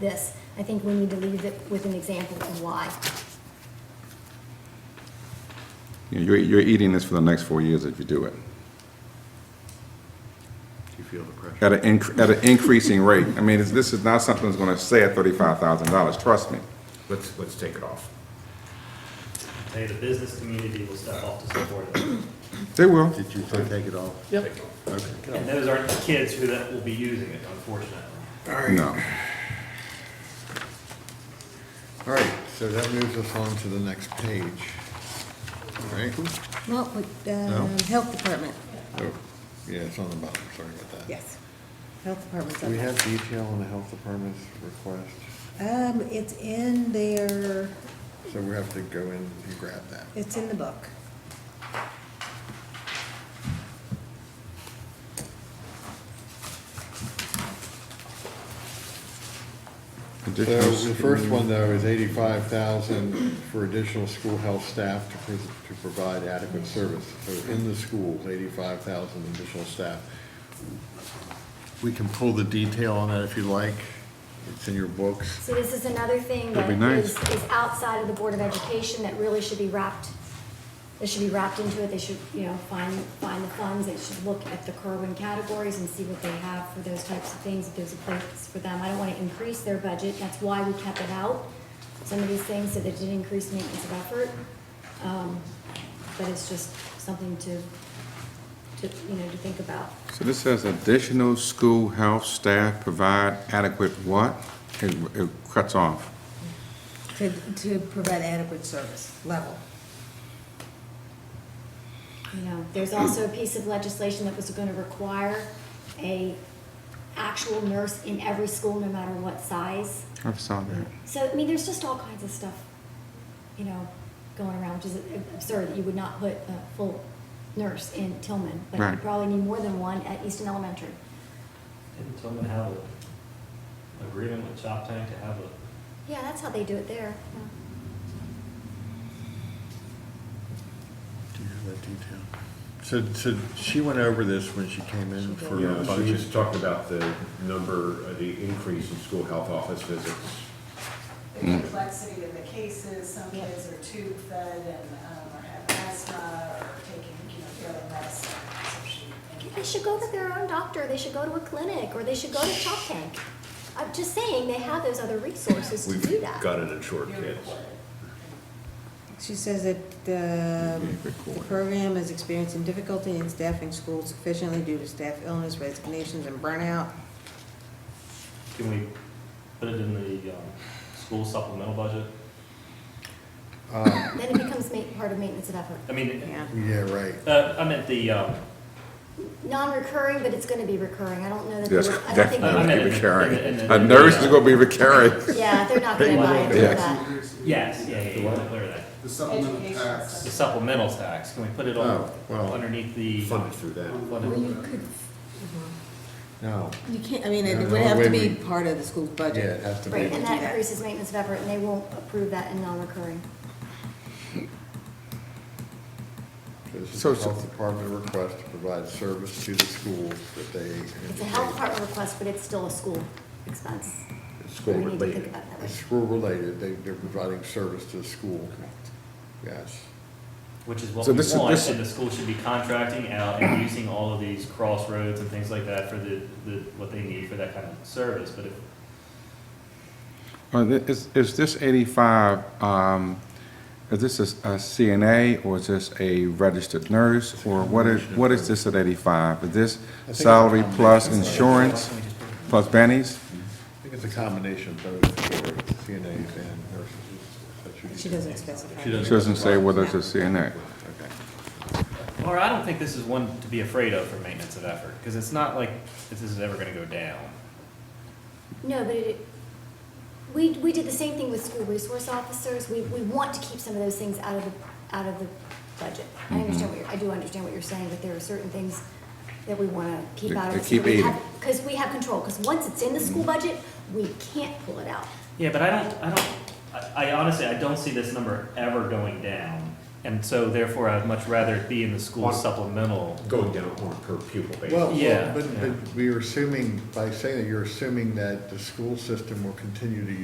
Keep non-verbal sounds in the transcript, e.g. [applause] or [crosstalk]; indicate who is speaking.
Speaker 1: this. I think we need to leave it with an example of why.
Speaker 2: You know, You're, you're eating this for the next four years if you do it,
Speaker 3: Do you feel the pressure?
Speaker 2: at an, inc- at an increasing rate. I mean, it's- this is not something that's gonna stay at thirty-five thousand dollars, trust me. Let's, let's take it off.
Speaker 4: Hey, the business community will step up to support it. [clears throat]
Speaker 2: They will.
Speaker 3: Did you say take it off? Yep. Okay.
Speaker 4: And those aren't the kids who that will be using it, unfortunately.
Speaker 2: No.
Speaker 3: All right, so that moves us on to the next page. All right?
Speaker 5: Well, with, um, Health Department,
Speaker 3: Oh, Yeah, it's on the bottom, sorry about that.
Speaker 5: yes. Health Department's
Speaker 3: Do we
Speaker 5: on
Speaker 3: have detail on the health department's request?
Speaker 5: Um, it's in their,
Speaker 3: So we have to go in and grab that.
Speaker 5: it's in the book.
Speaker 3: So the first one, uh, though, is eighty-five thousand for additional school health staff to, pres- to provide adequate service. So in the schools, eighty-five thousand additional staff. We can pull the detail on that if you like. It's in your books.
Speaker 1: So this is another thing that
Speaker 2: That'd be
Speaker 1: is,
Speaker 2: nice.
Speaker 1: is outside of the Board of Education that really should be wrapped, that should be wrapped into it. They should, you know, find, find the funds. They should look at the Kerwin categories and see what they have for those types of things, if there's a place for them. I don't want to increase their budget. That's why we kept it out. Some of these things, so they did increase maintenance of effort. Um, But it's just something to, to, you know, to think about.
Speaker 2: So this says additional school health staff provide adequate what? It, it cuts off.
Speaker 5: To, to provide adequate service level.
Speaker 1: You know, there's also a piece of legislation that was gonna require a actual nurse in every school, no matter what size.
Speaker 2: I saw that.
Speaker 1: So, I mean, there's just all kinds of stuff, you know, going around, which is absurd that you would not put a full nurse in Tillman. But you
Speaker 2: Right.
Speaker 1: probably need more than one at Easton Elementary.
Speaker 4: Didn't Tillman have an agreement with Chop Tank to have a,
Speaker 1: Yeah, that's how they do it there. yeah.
Speaker 3: Do you have that detail? So, so she went over this when she came in for her
Speaker 6: Yeah, she
Speaker 3: budget.
Speaker 6: was talking about the number, uh, the increase in school health office visits.
Speaker 7: the complexity of the cases, some kids are tube fed and, um, or have asthma or taking, you know, daily medicine, so she.
Speaker 1: They should go to their own doctor, they should go to a clinic, or they should go to Chop Tank. I'm just saying, they have those other resources to do
Speaker 6: We've
Speaker 1: that.
Speaker 6: got it in short
Speaker 7: You're
Speaker 6: kids.
Speaker 7: recorded.
Speaker 5: She says that the, the program is experiencing difficulty in staffing schools sufficiently due to staff illness, resignations, and burnout.
Speaker 4: can we put it in the, um, school supplemental budget?
Speaker 1: Then it becomes ma- part of maintenance of effort.
Speaker 4: I mean,
Speaker 5: Yeah.
Speaker 3: Yeah, right.
Speaker 4: uh, I meant the, um,
Speaker 1: Non-recurring, but it's gonna be recurring, I don't know that. they
Speaker 2: Yes,
Speaker 1: would- I don't think they
Speaker 2: definitely
Speaker 4: I
Speaker 2: gonna
Speaker 4: meant
Speaker 2: be
Speaker 4: in the-
Speaker 2: recurring.
Speaker 4: in the- in
Speaker 2: A
Speaker 4: the-
Speaker 2: nurse is gonna be recurring.
Speaker 1: would- Yeah, they're not gonna buy into
Speaker 2: Yes.
Speaker 1: that.
Speaker 4: yes, yeah, yeah, yeah, clear that.
Speaker 8: The supplemental
Speaker 7: Education
Speaker 8: tax.
Speaker 4: The supplemental tax, can we put it on,
Speaker 3: Oh, well,
Speaker 4: underneath the?
Speaker 6: Funded through that.
Speaker 4: funded?
Speaker 3: No,
Speaker 5: You can't, I mean,
Speaker 3: Yeah,
Speaker 5: it
Speaker 3: the
Speaker 5: would have to
Speaker 3: way
Speaker 5: be
Speaker 3: we-
Speaker 5: part of the school's
Speaker 3: yeah,
Speaker 5: budget.
Speaker 3: it has to be.
Speaker 1: Right, and that
Speaker 5: Yeah.
Speaker 1: increases maintenance of effort, and they won't approve that in non-recurring.
Speaker 3: This is
Speaker 2: So-
Speaker 3: the health department request to provide service to the schools that they.
Speaker 1: It's a health department request, but it's still a school expense.
Speaker 3: It's School
Speaker 1: We need to think
Speaker 3: related.
Speaker 1: about that.
Speaker 3: It's school related, they, they're providing service to the school. Yes.
Speaker 4: Which is what
Speaker 2: So
Speaker 4: we
Speaker 2: this is-
Speaker 4: want,
Speaker 2: this-
Speaker 4: and the school should be contracting out and using all of these crossroads and things like that for the, the, what they need for that kind of service, but if,
Speaker 2: Uh, thi- Is, is this eighty-five, um, is this a s- a CNA or is this a registered nurse? Or what is, what is this at eighty-five? Is this salary plus insurance plus bennies?
Speaker 3: I think it's a combination of both for CNAs and nurses. That should be-
Speaker 5: She doesn't specify.
Speaker 3: She
Speaker 2: It
Speaker 3: doesn't.
Speaker 2: doesn't say whether it's a CNA.
Speaker 3: Okay.
Speaker 4: Laura, I don't think this is one to be afraid of for maintenance of effort, because it's not like this is ever gonna go down.
Speaker 1: No, but it, we, we did the same thing with school resource officers, we, we want to keep some of those things out of the, out of the budget. I
Speaker 2: Mm-hmm.
Speaker 1: understand what you're, I do understand what you're saying, but there are certain things that we wanna keep
Speaker 2: To-
Speaker 1: out
Speaker 2: to
Speaker 1: of. it so
Speaker 2: keep Mm-hmm.
Speaker 1: we have-
Speaker 2: eating.
Speaker 1: Cause we have control, cause once it's in the school budget, we can't pull it out.
Speaker 4: Yeah, but I don't, I don't, I- I honestly, I don't see this number ever going down. And so therefore, I'd much rather it be in the school supplemental.
Speaker 6: going down on a per pupil basis.
Speaker 3: Well,
Speaker 4: Yeah,
Speaker 3: well, but,
Speaker 4: yeah.
Speaker 3: but we are assuming, by saying that, you're assuming that the school system will continue to